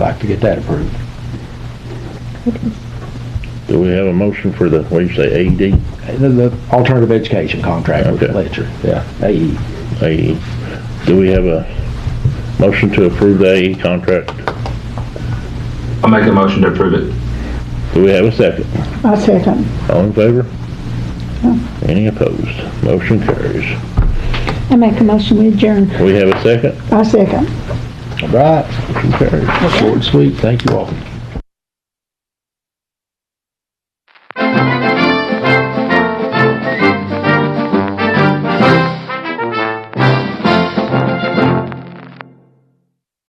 to get that approved. Do we have a motion for the, what do you say, AED? The, the alternative education contract with Okay. Fletcher, yeah, AE. AE. E. Do we have a motion to approve the AE contract? I'll make a motion to approve it. Do we have a second? I second. All in favor? Any opposed? Motion carries. I make a motion we adjourn. We have a second? I second. All right. Short and sweet, thank you all.